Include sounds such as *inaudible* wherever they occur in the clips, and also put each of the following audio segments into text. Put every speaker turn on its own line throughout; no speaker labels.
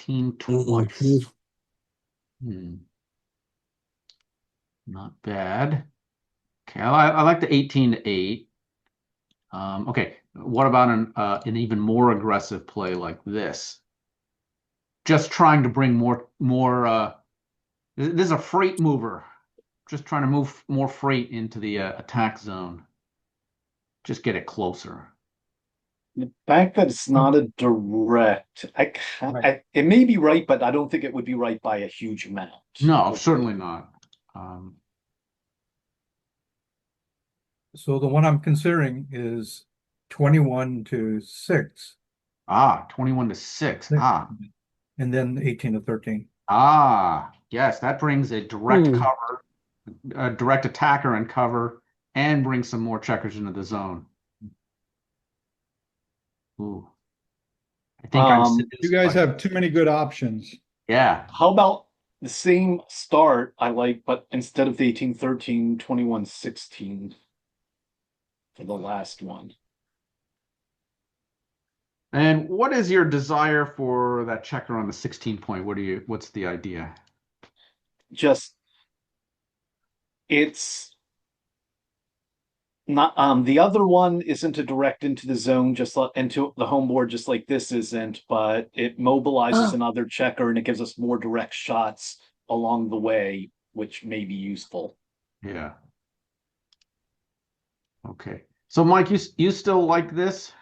18
Okay.
twice. Hmm. Not bad. Okay, I, I like the 18 to 8. Um, okay, what about an uh, an even more aggressive play like this? Just trying to bring more more uh th- this is a freight mover. Just trying to move more freight into the uh, attack zone. Just get it closer.
The fact that it's not a direct, I, ca- I, it may be right, but I don't think it would be right by a huge amount.
No, certainly not. Um,
So the one I'm considering is twenty-one to six
ah, 21 to 6. Ah.
and then eighteen to thirteen.
Ah, yes, that brings a direct
Hmm.
cover, a direct attacker and cover, and brings some more checkers into the zone. Ooh. I think I'm
Um,
seduced
You guys
by-
have too many good options.
Yeah,
How about the same start I like, but instead of the 18, 13, 21, 16 for the last one?
and what is your desire for that checker on the 16 point? What do you, what's the idea?
Just it's not um the other one isn't a direct into the zone just like into the home board just like this isn't but it mobilizes
Oh.
another checker and it gives us more direct shots along the way which may be useful
Yeah. Okay, so Mike, you s- you still like this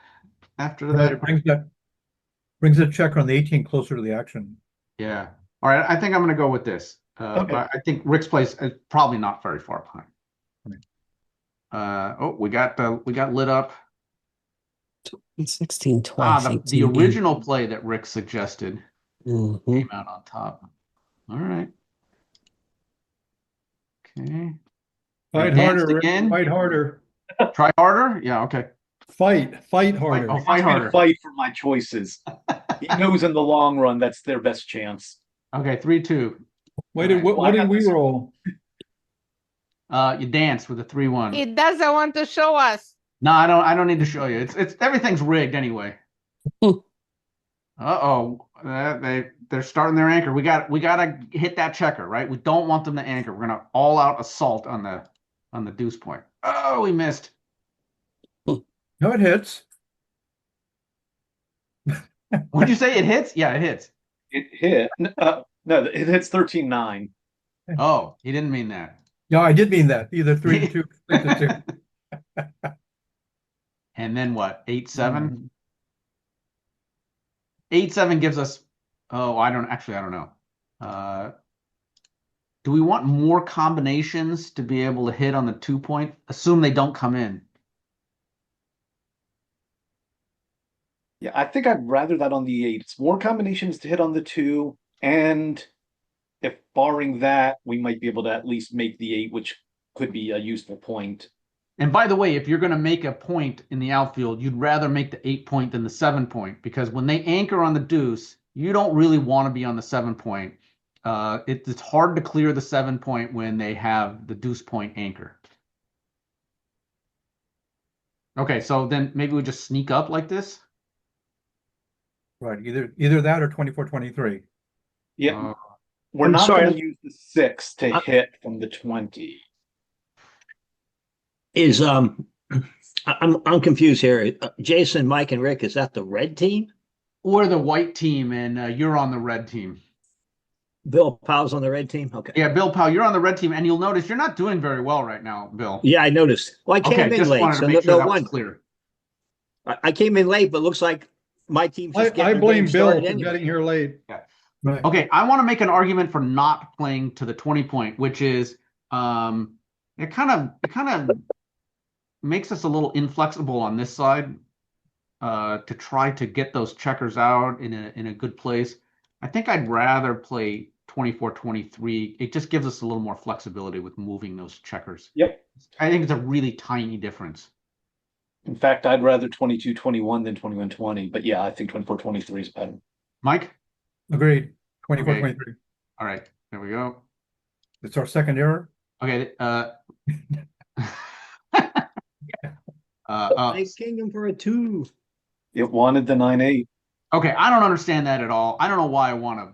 after that?
It brings that, brings the checker on the eighteen closer to the action.
Yeah. All right. I think I'm going to go with this. Uh,
Okay.
but I think Rick's place is probably not very far behind. Uh, oh, we got the we got lit up.
Sixteen
Ah,
twice.
the, the original play that Rick suggested
hmm
came out on top. All right. Okay.
Fight
Advanced
harder, Rick.
again?
fight harder,
Try harder. Yeah. Okay.
fight, fight
Fight,
harder.
oh, fight
I'm gonna
harder.
fight for my choices. he knows in the long run that's their best chance.
Okay. Three, two.
What did, what,
Well, I
what did
got
we
this.
roll?
Uh, you dance with a three, one.
It doesn't want to show us.
No, I don't. I don't need to show you. It's it's everything's rigged anyway.
Hmm.
Uh-oh, uh, they they're starting their anchor. We got we gotta hit that checker, right? We don't want them to anchor. We're gonna all out assault on the on the deuce point. Oh, we missed.
No, it hits.
Would you say it hits? Yeah, it hits.
It hit. n- Uh, no, it hits 13 9.
Oh, he didn't mean that.
No, I did mean that, either three to two, six to two.
And then what? Eight
Mm.
seven. Eight seven gives us. Oh, I don't actually. I don't know. Uh, do we want more combinations to be able to hit on the two point? Assume they don't come in.
Yeah, I think I'd rather that on the 8. It's more combinations to hit on the 2. And if barring that, we might be able to at least make the 8, which could be a useful point.
And by the way, if you're going to make a point in the outfield, you'd rather make the eight point than the seven point because when they anchor on the deuce, you don't really want to be on the seven point. Uh, it, it's hard to clear the seven point when they have the deuce point anchor. Okay, so then maybe we just sneak up like this.
Right, either, either that or twenty-four, twenty-three.
Yeah,
Uh,
we're
I'm
not
sorry. Uh,
going to use the 6 to
I-
hit from the 20.
Is, um, I- I'm, I'm confused here. Uh, Jason, Mike and Rick, is that the red team?
or the white team, and uh, you're on the red team.
Bill Powell's on the red team? Okay.
Yeah, Bill Powell, you're on the red team, and you'll notice you're not doing very well right now, Bill.
Yeah, I noticed. Well, I
Okay,
came in
just
late,
wanted
so
to
no,
make sure
no
that was
one,
clear.
I, I came in late, but looks like my team's
I,
just
I
getting the game
blame Bill for
started anyway.
getting here late.
Right.
Okay, I want to make an argument for not playing to the 20 point, which is um it kind of it kind of makes us a little inflexible on this side uh to try to get those checkers out in a in a good place. I think I'd rather play 24 23. It just gives us a little more flexibility with moving those checkers.
Yep.
I think it's a really tiny difference.
In fact, I'd rather 22 21 than 21 20. But yeah, I think 24 23 is better.
Mike?
Agreed, twenty-four,
Okay.
twenty-three.
All right. There we go.
It's our second error.
Okay, uh *laughs* uh, uh
Thank Kingdom for a two.
It wanted the 9 8.
Okay, I don't understand that at all. I don't know why I want to